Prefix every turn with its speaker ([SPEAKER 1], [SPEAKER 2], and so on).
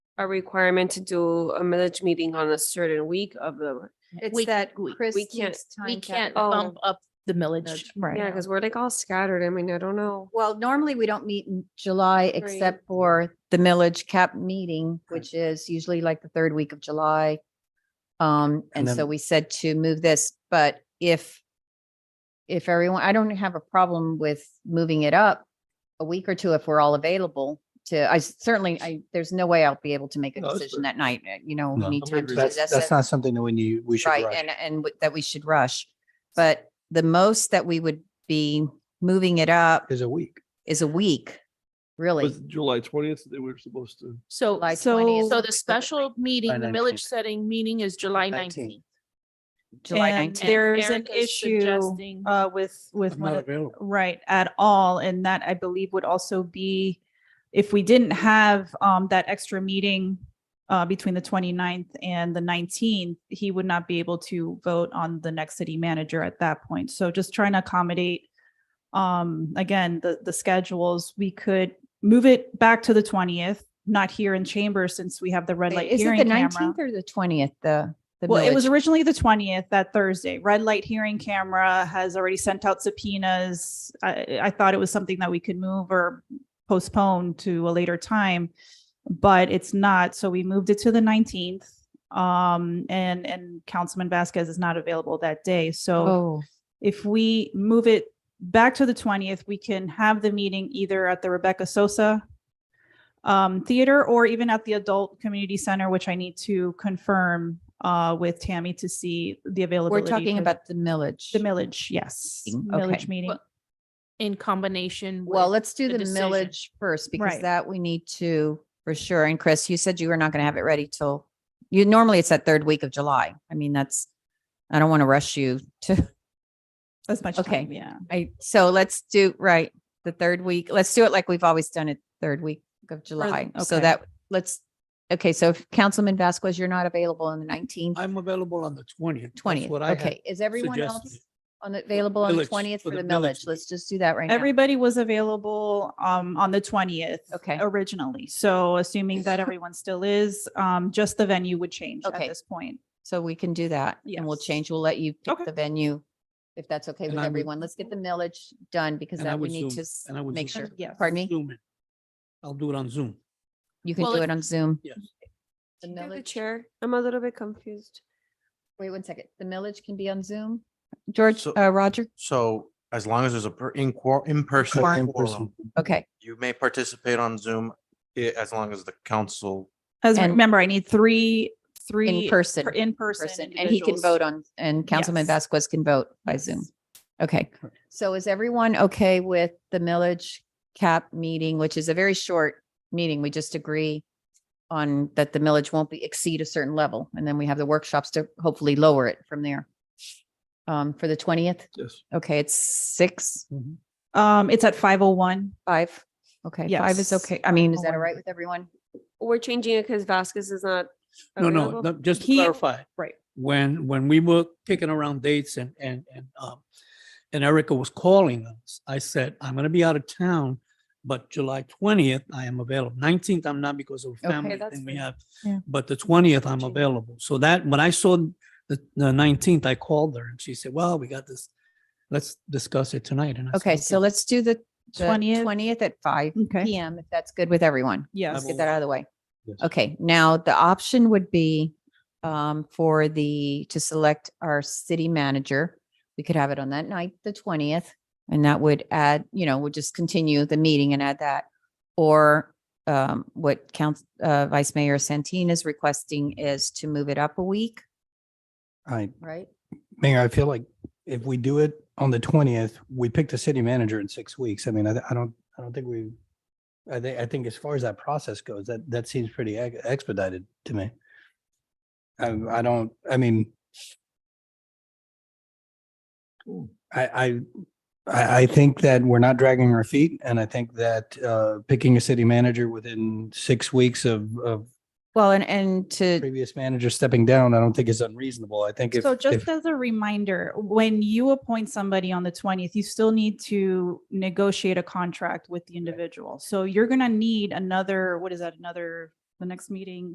[SPEAKER 1] a requirement to do a village meeting on a certain week of the,
[SPEAKER 2] We-
[SPEAKER 3] It's that
[SPEAKER 2] we-
[SPEAKER 3] Chris
[SPEAKER 1] we
[SPEAKER 3] keeps
[SPEAKER 1] can't-
[SPEAKER 3] time.
[SPEAKER 2] We can't
[SPEAKER 3] cap-
[SPEAKER 1] Oh.
[SPEAKER 2] bump up the millage right
[SPEAKER 1] yeah,
[SPEAKER 2] now.
[SPEAKER 1] because we're like all scattered. I mean, I don't know.
[SPEAKER 3] Well, normally we don't meet in July except for the millage cap meeting, which is usually like the third week of July. Um,
[SPEAKER 4] And
[SPEAKER 3] and so
[SPEAKER 4] then-
[SPEAKER 3] we said to move this, but if if everyone, I don't have a problem with moving it up a week or two if we're all available to, I certainly, I, there's no way I'll be able to make a
[SPEAKER 4] No, that's
[SPEAKER 3] decision that night, uh, you know,
[SPEAKER 4] No.
[SPEAKER 3] need time to
[SPEAKER 4] That's,
[SPEAKER 3] possess
[SPEAKER 4] that's
[SPEAKER 3] it.
[SPEAKER 4] not something that we need, we should
[SPEAKER 3] Right,
[SPEAKER 4] rush.
[SPEAKER 3] and, and w- that we should rush. But the most that we would be moving it up
[SPEAKER 4] Is a week.
[SPEAKER 3] is a week, really.
[SPEAKER 5] Was July twentieth, they were supposed to.
[SPEAKER 2] So,
[SPEAKER 3] July 20th.
[SPEAKER 2] so the special meeting, the
[SPEAKER 4] 19th.
[SPEAKER 2] village setting meeting is July nineteenth.
[SPEAKER 3] July
[SPEAKER 6] And
[SPEAKER 3] nineteenth.
[SPEAKER 6] There's an issue uh, with, with, one of-
[SPEAKER 4] available.
[SPEAKER 6] right, at all. And that I believe would also be if we didn't have um, that extra meeting uh, between the 29th and the 19th, he would not be able to vote on the next city manager at that point. So just trying to accommodate, um, again, the, the schedules, we could move it back to the 20th, not here in chamber since we have the red light
[SPEAKER 3] Is it the
[SPEAKER 6] hearing camera.
[SPEAKER 3] nineteenth or the twentieth, the? the
[SPEAKER 6] Well, it was
[SPEAKER 3] millage?
[SPEAKER 6] originally the twentieth, that Thursday. Red light hearing camera has already sent out subpoenas. I, I thought it was something that we could move or postpone to a later time, but it's not. So we moved it to the nineteenth. Um, and, and Councilman Vasquez is not available that day. So
[SPEAKER 3] Oh,
[SPEAKER 6] if we move it back to the twentieth, we can have the meeting either at the Rebecca Sosa um, theater or even at the adult community center, which I need to confirm uh, with Tammy to see the availability.
[SPEAKER 3] we're talking
[SPEAKER 6] for
[SPEAKER 3] about the millage.
[SPEAKER 6] The millage, yes.
[SPEAKER 3] Meeting, okay.
[SPEAKER 6] Millage meeting.
[SPEAKER 2] Well, In combination.
[SPEAKER 3] Well,
[SPEAKER 2] with-
[SPEAKER 3] let's do
[SPEAKER 2] the
[SPEAKER 3] the
[SPEAKER 2] decision.
[SPEAKER 3] millage first because
[SPEAKER 6] Right.
[SPEAKER 3] that we need to for sure. And Chris, you said you were not going to have it ready till you, normally it's that third week of July. I mean, that's, I don't want to rush you to,
[SPEAKER 6] As much
[SPEAKER 3] okay.
[SPEAKER 6] time, yeah.
[SPEAKER 3] I, so let's do, right, the third week. Let's do it like we've always done it, third week of July. So
[SPEAKER 6] okay.
[SPEAKER 3] that, let's, okay, so if Councilman Vasquez, you're not available on the nineteenth.
[SPEAKER 7] I'm available on the twentieth.
[SPEAKER 3] Twentieth, okay. Is everyone
[SPEAKER 7] suggested.
[SPEAKER 3] else on, the- available on the
[SPEAKER 7] millage-
[SPEAKER 3] twentieth
[SPEAKER 7] for
[SPEAKER 3] for the
[SPEAKER 7] the millage
[SPEAKER 3] millage? Let's just do that right now.
[SPEAKER 6] Everybody was available um, on the twentieth.
[SPEAKER 3] Okay.
[SPEAKER 6] Originally. So assuming that everyone still is, um, just the venue would change at
[SPEAKER 3] Okay.
[SPEAKER 6] this point.
[SPEAKER 3] So we can do that and we'll
[SPEAKER 6] Yes.
[SPEAKER 3] change. We'll let you pick
[SPEAKER 6] Okay.
[SPEAKER 3] the venue. If that's okay
[SPEAKER 7] And
[SPEAKER 3] with
[SPEAKER 7] I would-
[SPEAKER 3] everyone, let's get the millage done because
[SPEAKER 7] And I
[SPEAKER 3] that we
[SPEAKER 7] would
[SPEAKER 3] need
[SPEAKER 7] Zoom.
[SPEAKER 3] to s-
[SPEAKER 7] And I would
[SPEAKER 3] make
[SPEAKER 7] Zoom.
[SPEAKER 3] sure.
[SPEAKER 6] Yes.
[SPEAKER 3] Pardon me?
[SPEAKER 7] Zoom in. I'll do it on Zoom.
[SPEAKER 3] You can
[SPEAKER 2] Well,
[SPEAKER 3] do
[SPEAKER 2] if-
[SPEAKER 3] it on Zoom.
[SPEAKER 7] Yes.
[SPEAKER 3] The
[SPEAKER 1] Through the
[SPEAKER 3] millage,
[SPEAKER 1] chair, I'm a little bit confused.
[SPEAKER 3] wait one second. The millage can be on Zoom? George,
[SPEAKER 8] So-
[SPEAKER 3] uh, Roger?
[SPEAKER 8] So as long as there's a per- in quor- in person
[SPEAKER 4] In person.
[SPEAKER 8] quorum,
[SPEAKER 3] Okay.
[SPEAKER 8] you may participate on Zoom i- as long as the council.
[SPEAKER 6] As
[SPEAKER 3] And-
[SPEAKER 6] remember, I need three, three.
[SPEAKER 3] person,
[SPEAKER 6] per- In person.
[SPEAKER 3] Person and he can
[SPEAKER 6] individuals.
[SPEAKER 3] vote on, and Councilman
[SPEAKER 6] Yes.
[SPEAKER 3] Vasquez can vote by Zoom. Okay. So is everyone okay with the millage cap meeting, which is a very short meeting? We just agree on that the millage won't be exceed a certain level, and then we have the workshops to hopefully lower it from there. Um, for the twentieth,
[SPEAKER 5] Yes.
[SPEAKER 3] okay, it's six,
[SPEAKER 6] Um, it's at five oh one.
[SPEAKER 3] five, okay, five is
[SPEAKER 6] Yes.
[SPEAKER 3] okay. I mean, is that all
[SPEAKER 6] 501.
[SPEAKER 3] right with everyone?
[SPEAKER 1] We're changing it because Vasquez is not.
[SPEAKER 7] No, no,
[SPEAKER 1] available.
[SPEAKER 7] no, just to
[SPEAKER 6] He-
[SPEAKER 7] clarify.
[SPEAKER 6] right.
[SPEAKER 7] When, when we were kicking around dates and, and, and, um, and Erica was calling us, I said, I'm gonna be out of town, but July twentieth, I am available. Nineteenth, I'm not because of a
[SPEAKER 3] Okay,
[SPEAKER 7] family
[SPEAKER 1] that's
[SPEAKER 7] thing we
[SPEAKER 1] fine.
[SPEAKER 7] have.
[SPEAKER 6] Yeah.
[SPEAKER 7] But the twentieth, I'm
[SPEAKER 1] Change.
[SPEAKER 7] available. So that, when I saw the, the nineteenth, I called her and she said, well, we got this. Let's discuss it tonight. And I said,
[SPEAKER 3] Okay, so let's do the
[SPEAKER 6] Twentieth.
[SPEAKER 3] twentieth at five
[SPEAKER 6] Okay.
[SPEAKER 3] PM, if that's good with everyone.
[SPEAKER 6] Yes.
[SPEAKER 3] Let's get that out of the way.
[SPEAKER 4] Yes.
[SPEAKER 3] Okay, now the option would be um, for the, to select our city manager. We could have it on that night, the twentieth, and that would add, you know, would just continue the meeting and add that. Or um, what Council, uh, Vice Mayor Santin is requesting is to move it up a week,
[SPEAKER 4] I,
[SPEAKER 3] right?
[SPEAKER 4] Mayor, I feel like if we do it on the twentieth, we pick the city manager in six weeks. I mean, I, I don't, I don't think we, I think, I think as far as that process goes, that, that seems pretty ex- expedited to me. I, I don't, I mean, I, I, I, I think that we're not dragging our feet and I think that, uh, picking a city manager within six weeks of, of
[SPEAKER 3] Well, and, and to,
[SPEAKER 4] previous manager stepping down, I don't think is unreasonable. I think if.
[SPEAKER 6] So
[SPEAKER 4] if-
[SPEAKER 6] just as a reminder, when you appoint somebody on the twentieth, you still need to negotiate a contract with the individual. So you're gonna need another, what is that, another, the next meeting,